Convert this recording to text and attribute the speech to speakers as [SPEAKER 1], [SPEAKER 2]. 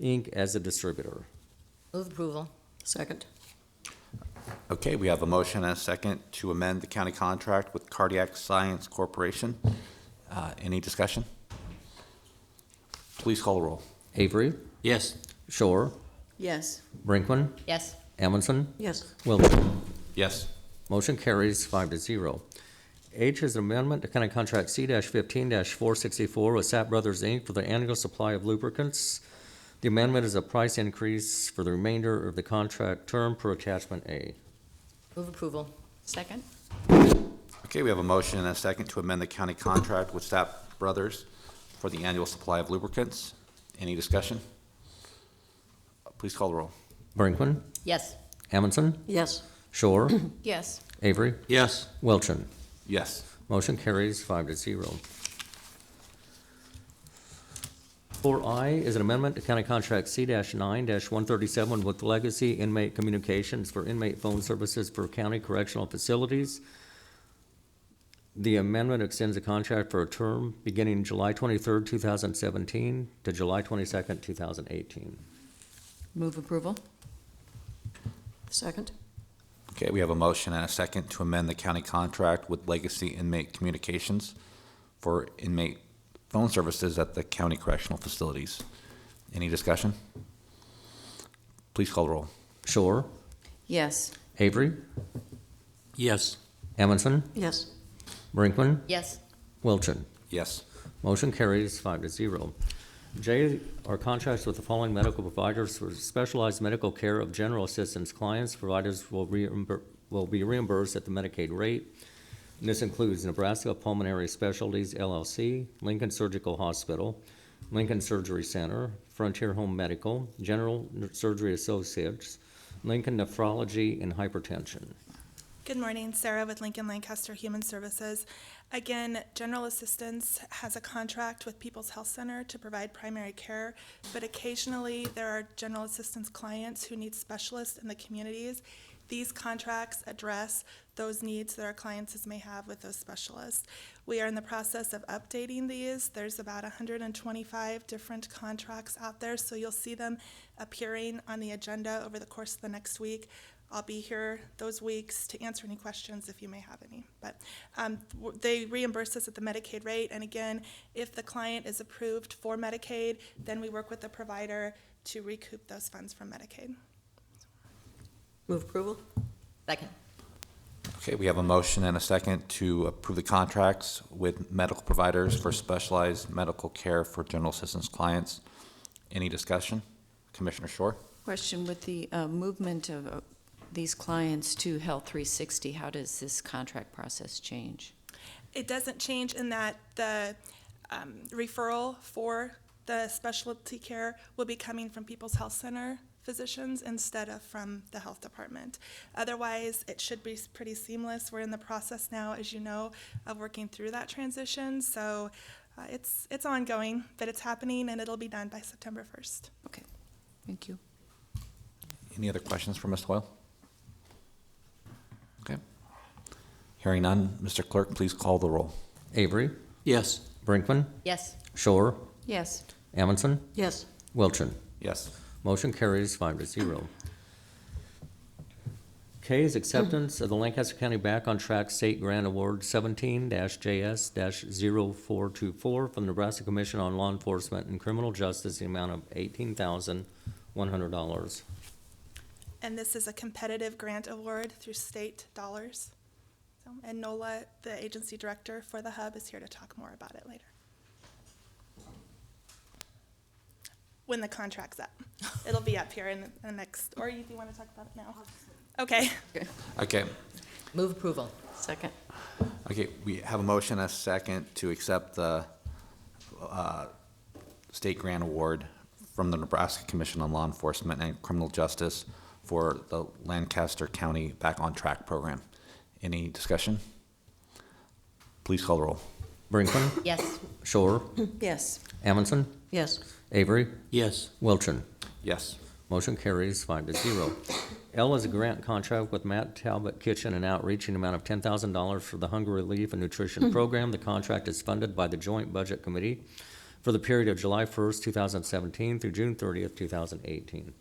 [SPEAKER 1] Inc. as a distributor.
[SPEAKER 2] Move approval.
[SPEAKER 3] Second.
[SPEAKER 4] Okay, we have a motion and a second to amend the county contract with Cardiac Science Corporation. Uh, Any discussion? Please call the roll.
[SPEAKER 1] Avery,
[SPEAKER 4] Yes.
[SPEAKER 1] Shore,
[SPEAKER 3] Yes.
[SPEAKER 1] Brinkman,
[SPEAKER 2] Yes.
[SPEAKER 1] Amundson,
[SPEAKER 3] Yes.
[SPEAKER 1] Wilton.
[SPEAKER 4] Yes.
[SPEAKER 1] Motion carries five to zero. H is amendment to county contract C fifteen four sixty-four with Sap Brothers Inc. for the annual supply of lubricants. The amendment is a price increase for the remainder of the contract term per attachment A.
[SPEAKER 2] Move approval.
[SPEAKER 3] Second.
[SPEAKER 4] Okay, we have a motion and a second to amend the county contract with Stapp Brothers for the annual supply of lubricants. Any discussion? Please call the roll.
[SPEAKER 1] Brinkman,
[SPEAKER 2] Yes.
[SPEAKER 1] Amundson,
[SPEAKER 3] Yes.
[SPEAKER 1] Shore,
[SPEAKER 3] Yes.
[SPEAKER 1] Avery,
[SPEAKER 4] Yes.
[SPEAKER 1] Wilton.
[SPEAKER 4] Yes.
[SPEAKER 1] Motion carries five to zero. Four I is an amendment to County Contract C nine one thirty-seven with Legacy Inmate Communications for inmate phone services for county correctional facilities. The amendment extends the contract for a term beginning July twenty-third, two thousand seventeen to July twenty-second, two thousand eighteen.
[SPEAKER 3] Move approval. Second.
[SPEAKER 4] Okay, we have a motion and a second to amend the county contract with Legacy Inmate Communications for inmate phone services at the county correctional facilities. Any discussion? Please call the roll.
[SPEAKER 1] Shore,
[SPEAKER 3] Yes.
[SPEAKER 1] Avery,
[SPEAKER 5] Yes,
[SPEAKER 1] Amundson,
[SPEAKER 3] Yes.
[SPEAKER 1] Brinkman,
[SPEAKER 2] Yes.
[SPEAKER 1] Wilton.
[SPEAKER 4] Yes.
[SPEAKER 1] Motion carries five to zero. J are contracts with the following medical providers for specialized medical care of general assistance clients. Providers will reimbur, will be reimbursed at the Medicaid rate. And This includes Nebraska Pulmonary Specialties LLC, Lincoln Surgical Hospital, Lincoln Surgery Center, Frontier Home Medical, General Surgery Associates, Lincoln Nephrology and Hypertension.
[SPEAKER 6] Good morning, Sarah with Lincoln Lancaster Human Services. Again, General Assistance has a contract with People's Health Center to provide primary care, but occasionally there are General Assistance clients who need specialists in the communities. These contracts address those needs that our clients may have with those specialists. We are in the process of updating these. There's about 125 different contracts out there, so you'll see them appearing on the agenda over the course of the next week. I'll be here those weeks to answer any questions if you may have any. But um, w- they reimburse us at the Medicaid rate, and again, if the client is approved for Medicaid, then we work with the provider to recoup those funds from Medicaid.
[SPEAKER 3] Move approval.
[SPEAKER 2] Second.
[SPEAKER 4] Okay, we have a motion and a second to approve the contracts with medical providers for specialized medical care for general assistance clients. Any discussion? Commissioner Shore?
[SPEAKER 7] Question, with the uh, movement of uh, these clients to Health 360, how does this contract process change?
[SPEAKER 6] It doesn't change in that the um, referral for the specialty care will be coming from People's Health Center physicians instead of from the health department. Otherwise, it should be s- pretty seamless. We're in the process now, as you know, of working through that transition. So uh, it's it's ongoing, but it's happening, and it'll be done by September 1st.
[SPEAKER 7] Okay, thank you.
[SPEAKER 4] Any other questions for Ms. Hoyle? Okay. Hearing none, Mr. Clerk, please call the roll.
[SPEAKER 1] Avery,
[SPEAKER 5] yes,
[SPEAKER 1] Brinkman,
[SPEAKER 2] Yes.
[SPEAKER 1] Shore,
[SPEAKER 7] Yes,
[SPEAKER 1] Amundson,
[SPEAKER 3] Yes.
[SPEAKER 1] Wilton.
[SPEAKER 4] Yes.
[SPEAKER 1] Motion carries five to zero. K is acceptance of the Lancaster County Back on Track State Grant Award seventeen JS 424 from the Nebraska Commission on Law Enforcement and Criminal Justice, the amount of eighteen thousand one hundred dollars.
[SPEAKER 6] And this is a competitive grant award through state dollars. So, and Nola, the agency director for the hub, is here to talk more about it later. When the contract's up. It'll be up here in the next, or you- do you want to talk about it now? Okay.
[SPEAKER 4] Okay,
[SPEAKER 2] Move approval.
[SPEAKER 7] second.
[SPEAKER 4] okay, we have a motion and a second to accept the uh, state grant award from the Nebraska Commission on Law Enforcement and Criminal Justice for the Lancaster County Back on Track Program. Any discussion? Please call the roll.
[SPEAKER 1] Brinkman,
[SPEAKER 2] Yes.
[SPEAKER 1] Shore,
[SPEAKER 3] Yes.
[SPEAKER 1] Amundson,
[SPEAKER 3] Yes.
[SPEAKER 1] Avery,
[SPEAKER 5] yes,
[SPEAKER 1] Wilton.
[SPEAKER 4] Yes.
[SPEAKER 1] Motion carries five to zero. L is a grant contract with Matt Talbot Kitchen and Outreach in the amount of ten thousand dollars for the Hunger Relief and Nutrition Program. The contract is funded by the Joint Budget Committee for the period of July 1st, 2017 through June 30th, 2018.